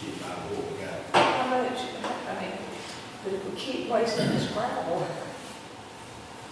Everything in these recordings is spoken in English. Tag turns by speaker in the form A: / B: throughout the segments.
A: get my board guy.
B: How much, I mean, but if we keep wasting this gravel,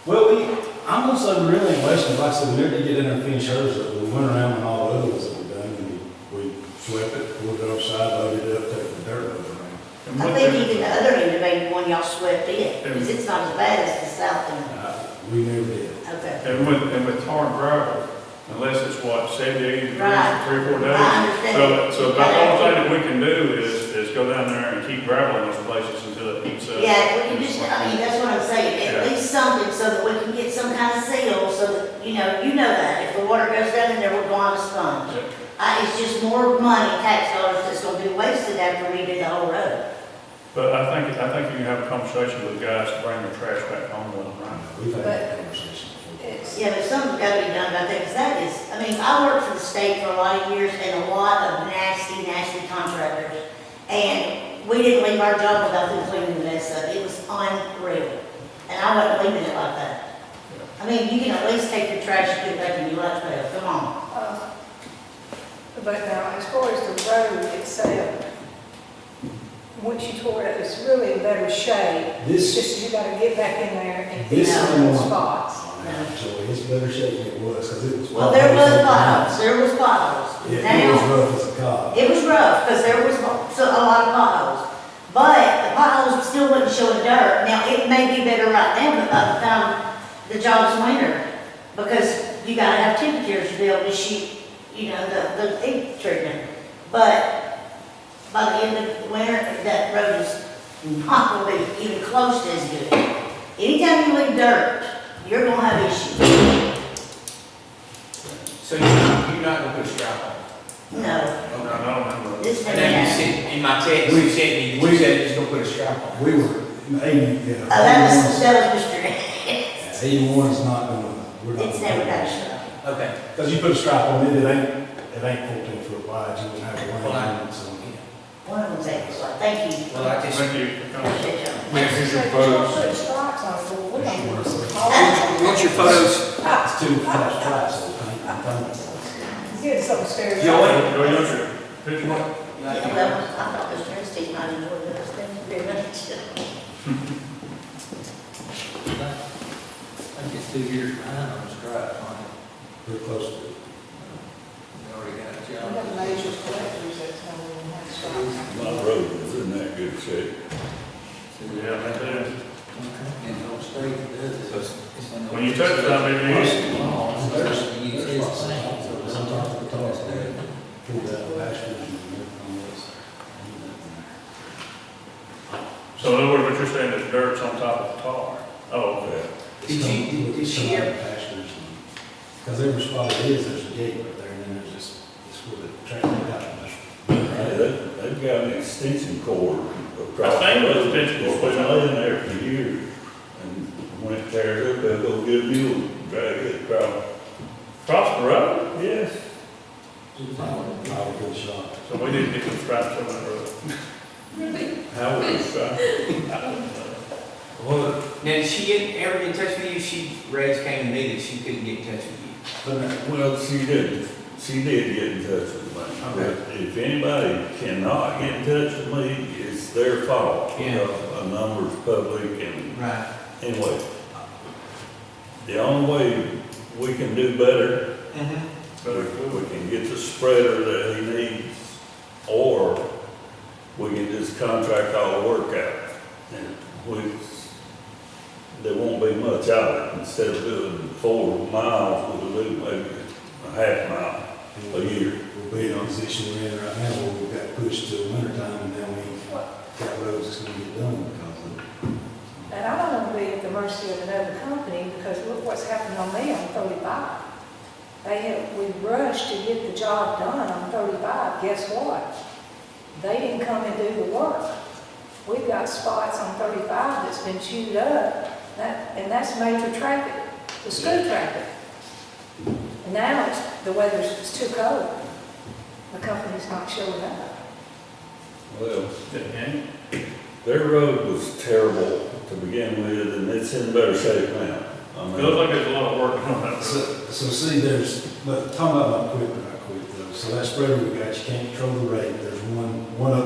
C: Well, we, I'm gonna say we really ain't wasting, like I said, we never did get in there and finish hers, up. we went around and all the other ones that we done, and we, we swept it, pulled it upside, loaded it up, took the dirt over around.
A: And
D: I
A: one
D: think
A: thing,
D: even the other end, maybe one y'all swept in, because it's not as bad as the south end.
C: Uh, We never did.
D: Okay.
A: and with, and with tar and gravel, unless it's what, seventy, eighty degrees
D: Right.
A: for three, or four days.
D: I understand.
A: So, so about the only thing that we can do is, is go down there and keep gravel in those places until it heats up.
D: Yeah, well, you just, I mean, that's what I'm saying,
A: Yeah.
D: at least something so that we can get some kind of seal, so that, you know, you know that. If the water goes down in there, we're going to sponge.
A: Yeah.
D: I, Uh, it's just more money, tax dollars that's gonna be wasted after we do the whole road.
A: But I think, I think you can have a conversation with guys to bring their trash back home with them, right?
C: Uh, We've had that conversation before.
B: it's,
D: Yeah, but something's gotta be done about that, because that is, I mean, I worked for the state for a lot of years and a lot of nasty, nasty contractors. And we didn't leave our job without them cleaning the mess up. It was unreal. And I wasn't leaving it like that. I mean, you can at least take your trash and put it back in your lunch pail, come on.
B: uh, but now, as far as the road itself, once you tore it, it's really in better shape.
C: This,
B: It's just you gotta get back in there and
C: this
B: fix
D: Yeah.
B: all
C: one,
B: the
C: so
B: spots.
C: oh, it's better shape than it was, cause it was.
D: Well, there was potholes, there was potholes.
C: Yeah, it was
D: Now,
C: rough as a cob.
D: it was rough, because there was mo- so- a lot of potholes. But the potholes still wouldn't show the dirt. Now, it may be better right now, but by the time the job's winter, because you gotta have temperatures to be able to shoot, you know, the, the heat treatment. But by the end of winter, that road is not gonna be even close to as good. Anytime you leave dirt, you're gonna have issues.
E: So you're not, you're not gonna put strap on?
D: No,
A: I don't know.
D: this
E: And
D: thing
E: then you
D: has.
E: said, in my text, you said, me-
C: We-
E: you said you're just gonna put a strap on.
C: We were, eighty, yeah.
D: Oh, that was, that was Mr.
C: Eighty-one's not gonna, we're not.
D: It's never got shut.
E: Okay.
C: Cause you put a strap on it, it ain't, it ain't fourteen foot wide, you wouldn't have to
E: Well, I-
C: run it, so.
D: One of them's eight, so thank you.
E: Well, I just.
A: Thank you for coming.
D: Appreciate y'all.
B: Yes,
E: your
B: Put stripes on it, well, we don't want to see all
E: What's your photos?
C: It's two flat straps, so I think, I think.
B: that. Get some stairs.
E: Joey?
A: Go use your picture book.
D: Yeah, well, I thought Mr. Ernestine might enjoy this, thank you very much.
F: I think it's two years behind on the strike plan.
C: we're close to it.
F: We already got a
B: We
F: job.
B: have major collectors that's gonna have stripes.
G: My road is in that good shape.
A: Yeah, that's it.
F: And don't stay with us.
E: So it's-
F: It's when the-
A: When you touch that, maybe you-
F: Oh, it's Thursday, you get his thing. So sometimes we talk today.
C: pull that last one and work on this.
A: So in other words, what you're saying is dirt's on top of the tar? Oh, okay.
E: Did you- did- did she ever-
C: Because every spot it is, there's a gate right there, and then there's this, this where the track went out. and
G: Hey,
C: there's-
G: they- They've got an extension cord across.
A: I think it was
G: the road.
A: extension cord.
G: It's been laying there for years. And when it tears up, they'll go get a mule, and drag it across.
A: Across the road?
G: Yes.
C: I was good shot.
A: So we need to get some stripes on that road.
G: How would it stop?
A: I don't know.
E: Well, now, did she get, ever get in touch with you? She, Reg came to me that she couldn't get in touch with you.
C: But uh,
G: Well, she did, she did get in touch with me.
E: Okay.
G: But If anybody cannot get in touch with me, it's their fault.
E: Yeah.
G: because A number's public and
E: Right.
G: Anyway, the only way we can do better,
E: Mm-hmm.
G: we we can get the spreader that he needs, or we can just contract all the work out. And we, there won't be much out of it, instead of doing four miles, we'll do maybe a half mile a year.
C: we'll be in a position we're in right now where we've got pushed to winter time, and now we ain't got roads that's gonna get done because of.
B: And I don't want to be at the mercy of another company, because look what's happened on me on thirty-five. They had, we rushed to get the job done on thirty-five, guess what? They didn't come and do the work. We've got spots on thirty-five that's been chewed up, that, and that's major traffic, the school traffic. And Now, it's, the weather's, it's too cold, the company's not showing up.
G: Well,
A: Didn't
G: their road was terrible to begin with, and it's in better shape now. I
A: you?
G: mean-
A: It looks like there's a lot of work on that
C: So,
A: road.
C: so see, there's, but talking about my equipment, I quit though, so that spreader we got, you can't control the rate, there's one, one of